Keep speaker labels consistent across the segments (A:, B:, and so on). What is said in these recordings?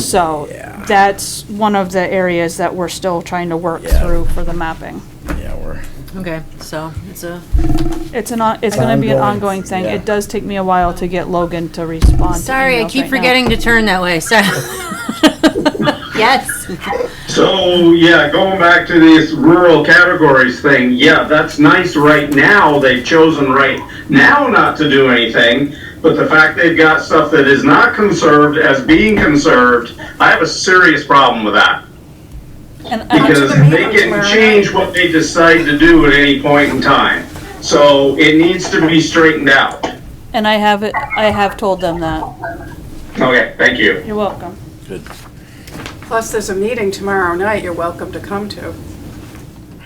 A: So
B: Yeah.
A: that's one of the areas that we're still trying to work
B: Yeah.
A: through for the mapping.
B: Yeah, we're,
C: Okay, so it's a,
A: It's an, on- it's gonna be an
B: Ongoing,
A: ongoing thing.
B: yeah.
A: It does take me a while to get Logan to respond. to
C: sorry, I
A: emails
C: keep
A: right now.
C: forgetting to turn that way, so. Yes,
D: So yeah, going back to this rural categories thing, yeah, that's nice right now. They've chosen right now not to do anything, but the fact they've got stuff that is not conserved as being conserved, I have a serious problem with that.
A: And- and I took
D: Because
A: a
D: they
A: meeting
D: can
A: where-
D: change what they decide to do at any point in time. So it needs to be straightened out.
A: And I have, it. I have told them that.
D: Okay, thank you.
A: You're welcome.
B: good.
E: Plus, there's a meeting tomorrow night you're welcome to come to.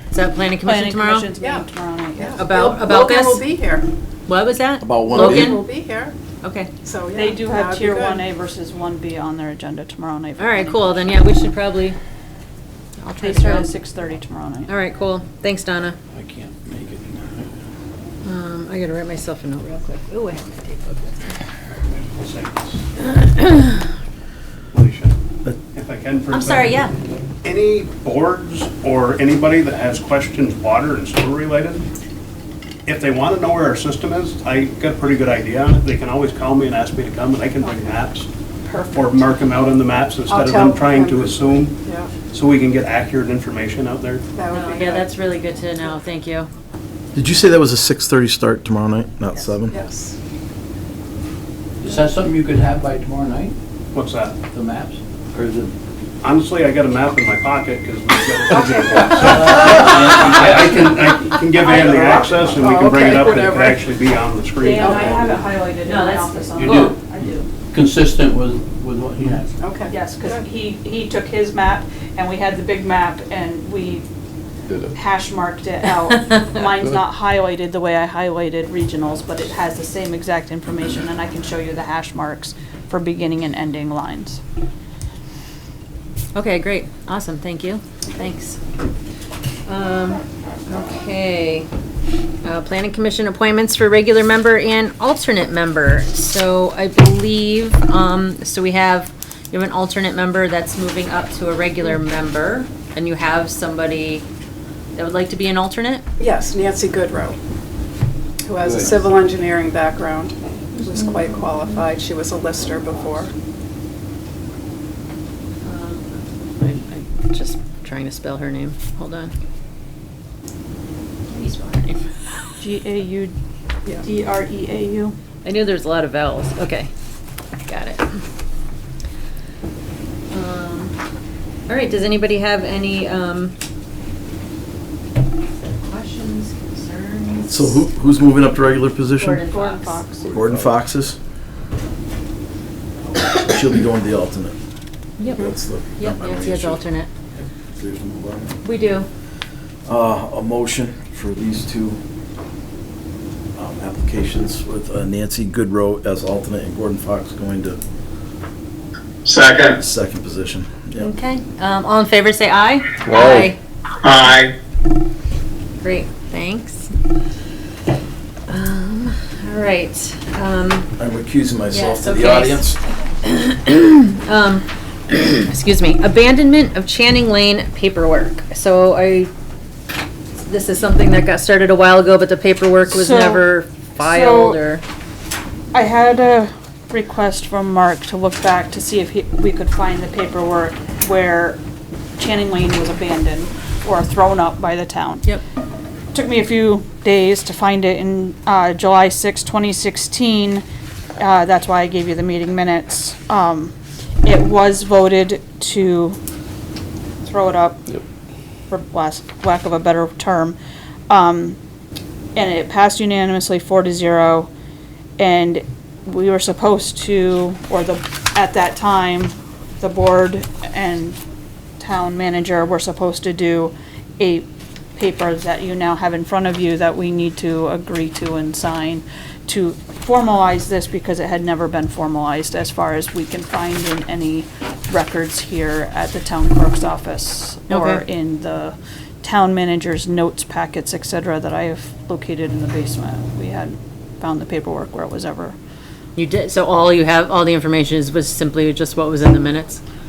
C: is that planning commission
A: Planning
C: tomorrow?
A: commission's meeting
E: Yeah.
A: tomorrow night. yeah.
C: About-
E: Lo-
C: about
E: Logan will
C: this?
E: be here.
C: What was that?
B: About one
E: Logan
B: B?
E: will
C: Logan?
E: be here,
C: Okay,
E: so yeah.
A: They do have
E: that'd be
A: tier
E: good.
A: one A versus one B on their agenda tomorrow night. for
C: all right,
A: planning.
C: cool, then yeah, we should probably. I'll try
A: They
C: to
A: start at
C: go.
A: six thirty tomorrow night.
C: All right, cool, thanks, Donna.
B: I can't make it.
C: Um, I gotta write myself a note real quick. Ooh, I have my tape.
F: Alicia, if I can for a
C: I'm sorry, yeah.
F: second. Any boards or anybody that has questions water and sewer related, if they want to know where our system is, I got a pretty good idea on it. They can always call me and ask me to come and I can bring maps. Or mark them out on the maps
E: I'll
F: instead of
E: tell
F: them trying
E: them.
F: to assume,
E: Yeah,
F: so we can get accurate information out there.
E: that would be good.
C: Oh, Yeah, that's really good to know, thank you.
G: Did you say that was a six thirty start tomorrow night, not seven?
E: Yes.
H: Is that something you could have by tomorrow night,
F: What's that?
H: the maps? Or is it?
F: Honestly, I got a map in my pocket because we've got a. uh, I I can, I can give Ann the access and we can bring it up and it can
E: Whatever.
F: actually be on the screen.
A: Yeah, I have it highlighted in
C: No,
A: my
C: that's-
A: office. on
H: You
A: the-
H: do?
A: I do,
H: Consistent with, with what he has?
E: Okay.
A: yes,
E: Good.
A: because he, he took his map, and we had the big map, and we
B: Did it.
A: hash marked it out. Mine's not highlighted the way I highlighted regionals, but it has the same exact information, and I can show you the hash marks for beginning and ending lines.
C: Okay, great, awesome, thank you, thanks. Um, okay, uh, planning commission appointments for regular member and alternate member. So I believe, um, so we have, you have an alternate member that's moving up to a regular member, and you have somebody that would like to be an alternate?
E: Yes, Nancy Goodrow, who has a
H: Good.
E: civil engineering background, was quite qualified. She was a lister before.
C: Um, I- I'm just trying to spell her name, hold on. How do you spell her name?
A: G A U
E: Yeah.
A: D R E A U.
C: I knew there's a lot of vowels. Okay, got it. Um, All right, does anybody have any um, questions, concerns?
G: So who, who's moving up to regular position?
C: Gordon
A: Gordon
C: Fox.
A: Fox.
G: Gordon Fox's? She'll be going to the alternate.
C: Yep,
G: That's the.
C: yep,
G: not my
C: Nancy
G: main
C: has
G: issue.
C: alternate.
G: There's no problem.
C: We do.
G: Uh, a motion for these two um, applications with uh, Nancy Goodrow as alternate and Gordon Fox going to
D: Second,
G: second position. Yeah.
C: Okay, um, all in favor, say aye. Aye.
D: aye.
C: Great, thanks. Um, All right, um,
G: I'm recusing myself
C: Yes,
G: to
C: okay.
G: the audience.
C: Um, excuse me, abandonment of Channing Lane paperwork. So I, this is something that got started a while ago, but the paperwork was
A: So-
C: never filed or,
A: I had a request from Mark to look back to see if he, we could find the paperwork where Channing Lane was abandoned or thrown up by the town.
C: yep,
A: Took me a few days to find it in, uh, July sixth, twenty sixteen. Uh, that's why I gave you the meeting minutes. Um, it was voted to throw it up. For last, lack of a better term. Um, and it passed unanimously four to zero. And we were supposed to, or the, at that time, the board and town manager were supposed to do a paper that you now have in front of you that we need to agree to and sign to formalize this because it had never been formalized as far as we can find in any records here at the town clerk's office or
C: Okay.
A: in the town manager's notes packets, et cetera, that I have located in the basement. We had found the paperwork where it was ever
C: You did, so all you have, all the information is, was simply just what was in the minutes?